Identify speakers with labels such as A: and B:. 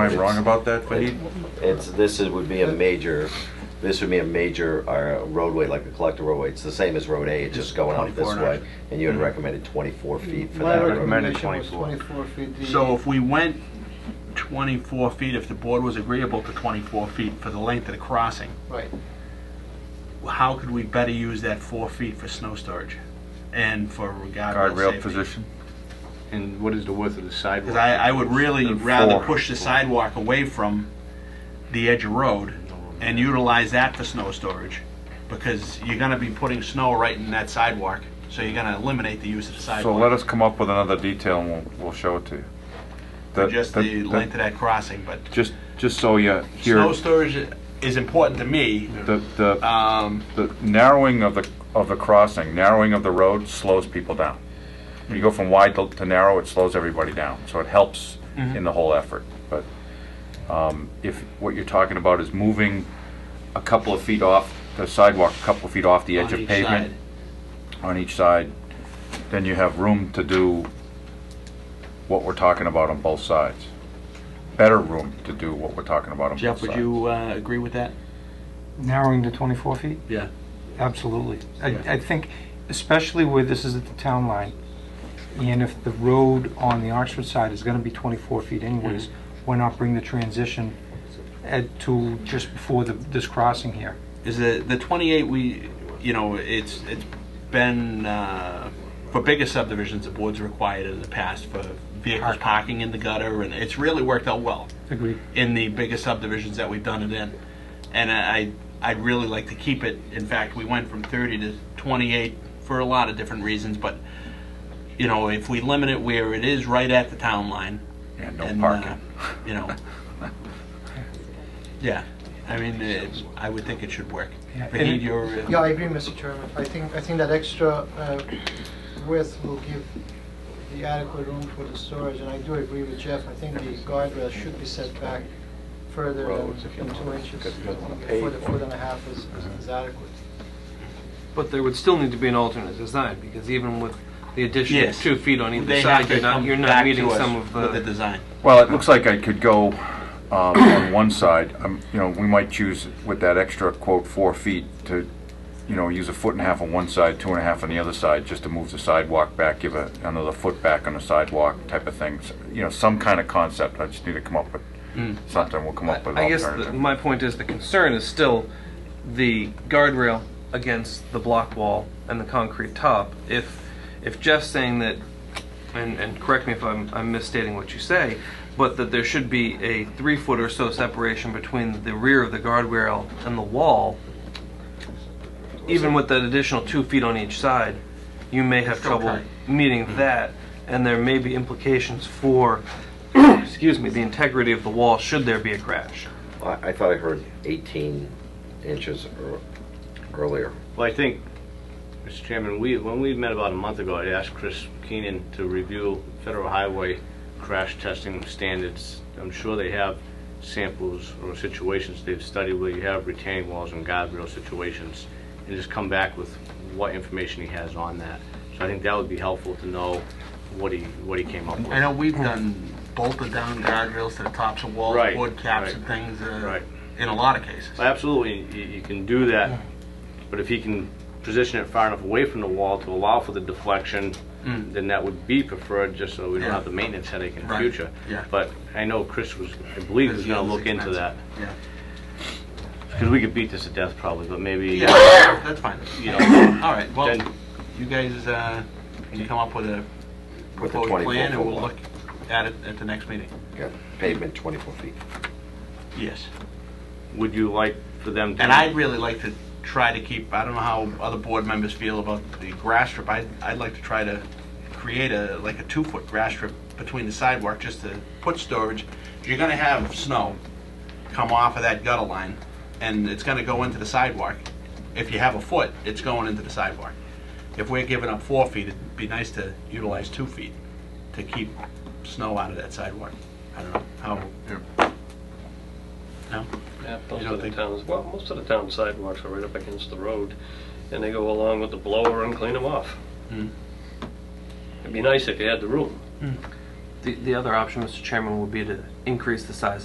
A: Am I wrong about that, Fahid?
B: It's, this is, would be a major, this would be a major uh, roadway, like a collector roadway. It's the same as Road A, it's just going out this
C: 24
B: way. And you had recommended 24 feet for
D: My
B: that. road.
D: recommendation was
C: 24.
D: 24 feet. The-
C: So if we went 24 feet, if the board was agreeable to 24 feet for the length of the crossing,
D: Right.
C: how could we better use that four feet for snow storage and for guardrail
A: Guardrail
C: safety?
A: position?
E: And what is the width of the sidewalk?
C: Because I, I would really rather
A: Four.
C: push the sidewalk away from the edge of road and utilize that for snow storage, because you're gonna be putting snow right in that sidewalk, so you're gonna eliminate the use of the
A: So let
C: sidewalk.
A: us come up with another detail and we'll, we'll show it to you.
C: for
A: That-
C: Just
A: that-
C: the
A: that-
C: length of that crossing, but
A: Just, just so you
C: snow
A: hear,
C: storage is important to me.
A: the, the,
C: Um,
A: the narrowing of the, of the crossing, narrowing of the road slows people down. When you go from wide to to narrow, it slows everybody down, so it helps
C: Mm-hmm.
A: in the whole effort. But, um, if what you're talking about is moving a couple of feet off the sidewalk, a couple of feet off the edge
C: on
A: of
C: each
A: pavement,
C: side.
A: on each side, then you have room to do what we're talking about on both sides. Better room to do what we're talking about on both
C: Jeff,
A: sides.
C: would you uh, agree with that?
F: Narrowing to 24 feet?
C: Yeah.
F: Absolutely. I, I think, especially where this is at the town line, and if the road on the Oxford side is gonna be 24 feet anyways, why not bring the transition at, to just before the, this crossing here?
C: Is the the 28 we, you know, it's it's been uh, for bigger subdivisions, the board's required in the past for vehicles parking in the gutter, and it's really worked out well
F: Agreed.
C: in the biggest subdivisions that we've done it in. And I, I'd really like to keep it, in fact, we went from 30 to 28 for a lot of different reasons, but, you know, if we limit it where it is right at the town line.
A: And no
C: uh,
A: parking.
C: You know. Yeah, I mean, it- I would think it should work.
F: Yeah, and
C: Fahid,
F: it-
C: you're, uh,
D: Yeah, I agree, Mr. Chairman. I think, I think that extra uh, width will give the adequate room for the storage, and I do agree with Jeff. I think the guardrail should be set back further than
E: Roads, if you
D: than
E: want,
D: two inches.
E: because you don't wanna
D: A
E: pave
D: Foot, a
E: for
D: foot and a half is, is adequate.
G: But there would still need to be an alternate design, because even with the addition of
C: Yes.
G: two feet on either
C: they have
G: side,
C: to
G: you're not,
C: come
G: you're
C: back
G: not
C: to
G: meeting
C: us
G: some of
C: With the
G: the,
C: design.
A: Well, it looks like I could go um, on one side, um, you know, we might choose with that extra quote, four feet to, you know, use a foot and a half on one side, two and a half on the other side, just to move the sidewalk back, give a- another foot back on the sidewalk type of thing. So, You know, some kind of concept, I just need to come up with, something we'll come up with an
G: Hmm. I guess the-
A: alternative.
G: my point is, the concern is still the guardrail against the block wall and the concrete top. If, if Jeff's saying that, and, and correct me if I'm, I'm misstating what you say, but that there should be a three-foot or so separation between the rear of the guardrail and the wall, even with that additional two feet on each side, you may have trouble meeting that, and there may be implications for, excuse me, the integrity of the wall should there be a crash.
B: I I thought I heard 18 inches ear- earlier.
E: Well, I think, Mr. Chairman, we, when we met about a month ago, I asked Chris Keenan to review federal highway crash testing standards. I'm sure they have samples or situations they've studied where you have retaining walls and guardrail situations, and just come back with what information he has on that. So I think that would be helpful to know what he, what he came up with.
C: I know we've done bolted down guardrails to the tops of walls,
E: Right,
C: wood caps and
E: right,
C: things, uh,
E: right.
C: in a lot of cases.
E: Absolutely, you, you can do that, but if he can position it far enough away from the wall to allow for the deflection,
C: Mm.
E: then that would be preferred, just so we don't
C: Yeah.
E: have the maintenance headache in the
C: Right,
E: future.
C: yeah.
E: But I know Chris was, I believe was gonna look into that,
C: Yeah.
E: because we could beat this to death probably, but maybe,
C: Yeah, that's fine.
E: you know,
C: All right, well,
E: Then-
C: you guys, uh, can come up with a
B: With the
C: proposed
B: 24
C: plan and we'll
B: foot
C: look at it at the next meeting?
B: Yeah, Pavement 24 feet.
C: Yes.
E: would you like for them to?
C: And I'd really like to try to keep, I don't know how other board members feel about the grass strip, I'd, I'd like to try to create a, like a two-foot grass strip between the sidewalk, just to put storage. You're gonna have snow come off of that gutter line, and it's gonna go into the sidewalk. If you have a foot, it's going into the sidewalk. If we're giving up four feet, it'd be nice to utilize two feet to keep snow out of that sidewalk. I don't know, how, no?
H: Yeah,
C: You
H: most
C: don't
H: of the
C: think-
H: towns, well, most of the town sidewalks are right up against the road, and they go along with the blower and clean them off.
C: Mm.
H: It'd be nice if you had the room.
G: The, the other option, Mr. Chairman, would be to increase the size